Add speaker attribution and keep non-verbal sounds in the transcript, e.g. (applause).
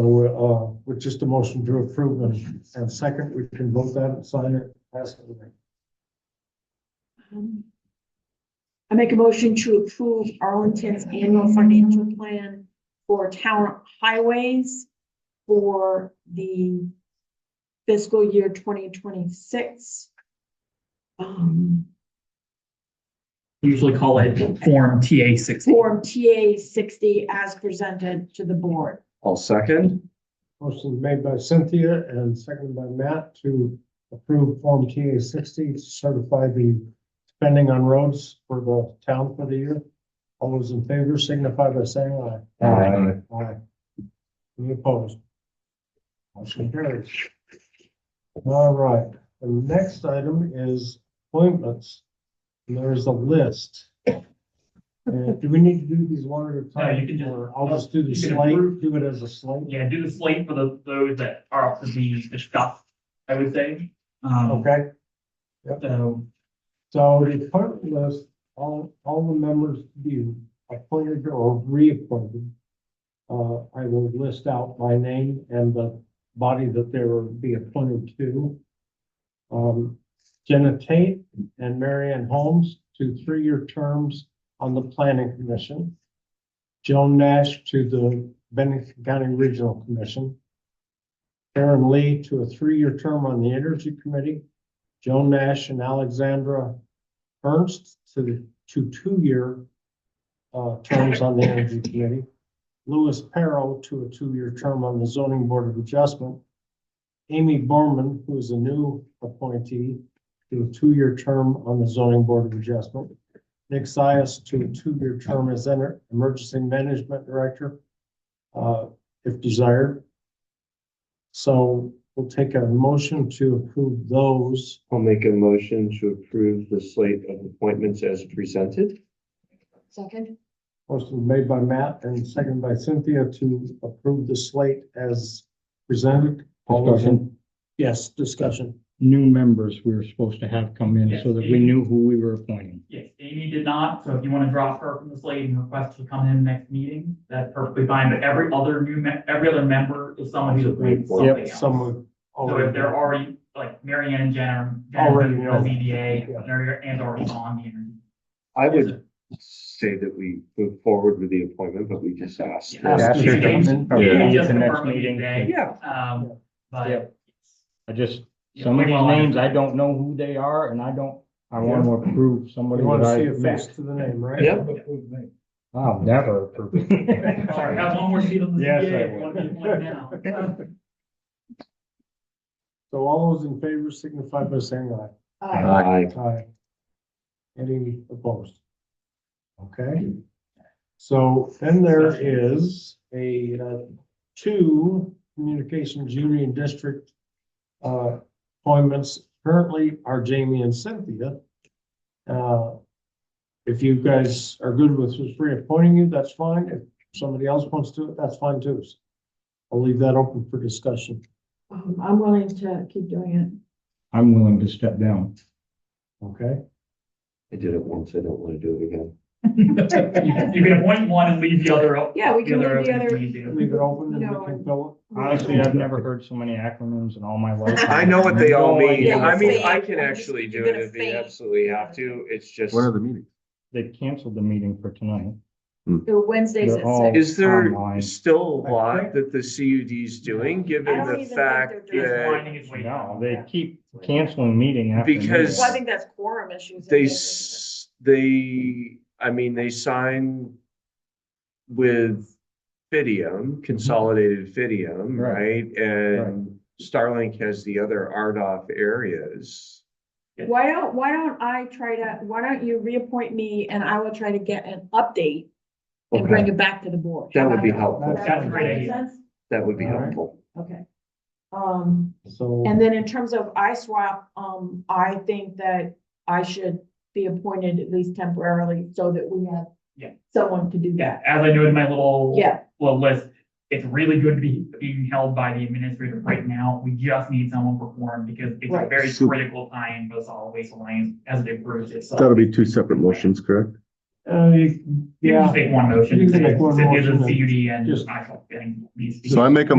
Speaker 1: So, uh, with just a motion to approve and, and second, we can vote that and sign it, pass it. away.
Speaker 2: Um, I make a motion to approve Arlington's annual financial plan for town highways for the fiscal year twenty twenty-six. Um,
Speaker 3: usually call it Form TA sixty.
Speaker 2: Form TA sixty as presented to the board.
Speaker 4: I'll second.
Speaker 1: Motion made by Cynthia and seconded by Matt to approve Form TA sixty, to certify the spending on roads for the town for the year. All those in favor signify by saying aye.
Speaker 4: Aye.
Speaker 1: Aye. Any opposed? Motion carries. All right, the next item is appointments. And There's a list. And do we need to do these one at a
Speaker 3: No,
Speaker 1: time?
Speaker 3: you can just-
Speaker 1: or I'll just do the
Speaker 3: you can
Speaker 1: slate,
Speaker 3: approve.
Speaker 1: do it as a slate.
Speaker 3: Yeah, do the slate for the, those that are up to be discussed, I would say. Um,
Speaker 1: Okay?
Speaker 3: so,
Speaker 1: So the appointment list, all, all the members be appointed or reappointed. Uh, I will list out my name and the body that they will be appointed to. Um, Jenna Tate and Marianne Holmes to three-year terms on the planning commission. Joan Nash to the Bennington County Regional Commission. Aaron Lee to a three-year term on the Energy Committee. Joan Nash and Alexandra Ernst to the, to two-year uh, terms on the Energy Committee. Louis Perro to a two-year term on the Zoning Board of Adjustment. Amy Borman, who is a new appointee, to a two-year term on the Zoning Board of Adjustment. Nick Sias to a two-year term as Ener- Emergency Management Director, uh, if desired. So we'll take a motion to approve those.
Speaker 4: I'll make a motion to approve the slate of appointments as presented.
Speaker 2: Second?
Speaker 1: Motion made by Matt and seconded by Cynthia to approve the slate as presented. All those in-
Speaker 5: Discussion.
Speaker 1: Yes, discussion.
Speaker 5: new members we were supposed to have come in so that we knew who we were appointing.
Speaker 3: yes, Amy did not, so if you want to drop her from the slate and request to come in next meeting, that's perfectly fine, but every other new, me- every other member is someone who's appointed something else.
Speaker 1: Some of.
Speaker 3: So if they're already, like, Mary Ann and Jen are.
Speaker 1: Already
Speaker 3: Jen is
Speaker 1: know.
Speaker 3: The ZBA,
Speaker 1: Yeah.
Speaker 3: they're- and are on here.
Speaker 4: I would say that we move forward with the appointment, but we just asked.
Speaker 3: Yeah.
Speaker 4: that-
Speaker 5: Ask your government, or
Speaker 3: Yeah.
Speaker 5: maybe at the next
Speaker 3: Confirm it today.
Speaker 5: meeting.
Speaker 4: Yeah,
Speaker 3: Um,
Speaker 5: Yeah.
Speaker 3: but.
Speaker 5: I just,
Speaker 3: Yeah,
Speaker 5: some of
Speaker 3: we
Speaker 5: these
Speaker 3: want-
Speaker 5: names, I don't know who they are and I don't, I want to approve
Speaker 1: We
Speaker 5: somebody
Speaker 1: want
Speaker 5: that
Speaker 1: to
Speaker 5: I
Speaker 1: see a face
Speaker 5: missed.
Speaker 1: to the name, right?
Speaker 4: Yep.
Speaker 5: I'll never (laughs) approve.
Speaker 3: Sorry, have one more seat on the
Speaker 5: Yes, I
Speaker 3: ZBA, if you
Speaker 5: would.
Speaker 3: want to be one now.
Speaker 1: So all those in favor signify by saying aye.
Speaker 2: Uh,
Speaker 4: Aye.
Speaker 1: Aye. Any opposed? Okay. So then there is a, uh, two communications union district uh, appointments currently are Jamie and Cynthia. Uh, If you guys are good with us reappointing you, that's fine. If somebody else wants to, that's fine too. I'll leave that open for discussion.
Speaker 2: um, I'm willing to keep doing
Speaker 5: I'm willing to step down.
Speaker 1: Okay?
Speaker 4: I did it once. I don't want to do it again.
Speaker 2: (laughs)
Speaker 3: You can appoint one and leave the other. o-
Speaker 2: Yeah, we can leave the
Speaker 3: open if
Speaker 2: other-
Speaker 3: we do.
Speaker 1: Leave it open and we can fill
Speaker 2: it.
Speaker 5: Honestly, I've never heard so many acronyms in all my life.
Speaker 4: I know what they all
Speaker 5: No
Speaker 4: mean.
Speaker 5: idea.
Speaker 4: I mean, I
Speaker 2: You're
Speaker 4: can
Speaker 2: gonna
Speaker 4: actually do
Speaker 2: faint.
Speaker 4: it if we absolutely have to. It's just,
Speaker 6: When are the meetings?
Speaker 5: They canceled the meeting for tonight.
Speaker 2: The Wednesdays at
Speaker 5: Mm. They're all-
Speaker 2: six.
Speaker 4: is there
Speaker 5: Online.
Speaker 4: still a lot that the CUD's doing,
Speaker 2: I
Speaker 4: given
Speaker 2: don't
Speaker 4: the
Speaker 2: even think
Speaker 4: fact
Speaker 2: they're doing
Speaker 3: It's
Speaker 4: that
Speaker 3: finding its way
Speaker 5: No,
Speaker 3: down.
Speaker 5: they keep canceling meeting after. meeting.
Speaker 4: Because-
Speaker 2: Well, I think that's quorum issues.
Speaker 4: they, s- they, I mean, they signed with Fidium, Consolidated Fidium,
Speaker 5: Right.
Speaker 4: right? And Starlink has the other RDOF areas.
Speaker 2: Why don't, why don't I try to, why don't you reappoint me and I will try to get an update and bring it back to the board?
Speaker 4: That would be
Speaker 2: How about
Speaker 4: helpful.
Speaker 2: that?
Speaker 3: That's a great
Speaker 2: That make
Speaker 3: idea.
Speaker 2: sense?
Speaker 4: That would be
Speaker 1: All right.
Speaker 4: helpful.
Speaker 2: Okay. Um,
Speaker 1: it. So.
Speaker 2: and then in terms of ISWAP, um, I think that I should be appointed at least temporarily so that we have
Speaker 3: Yeah.
Speaker 2: someone to do
Speaker 3: Yeah,
Speaker 2: that.
Speaker 3: as I noted in my little.
Speaker 2: Yeah,
Speaker 3: Well, list, it's really good to be being held by the administrator right now. We just need someone for forum because it's a
Speaker 2: Right.
Speaker 3: very
Speaker 6: Super.
Speaker 3: critical time for the solid waste alliance as they approach it. So.
Speaker 6: That'll be two separate motions, correct?
Speaker 1: Uh, you-
Speaker 3: You can
Speaker 1: yeah.
Speaker 3: just make one motion.
Speaker 1: You can make one
Speaker 3: It is a
Speaker 1: motion and
Speaker 3: CUD and
Speaker 1: just-
Speaker 3: actual thing.
Speaker 6: So I make a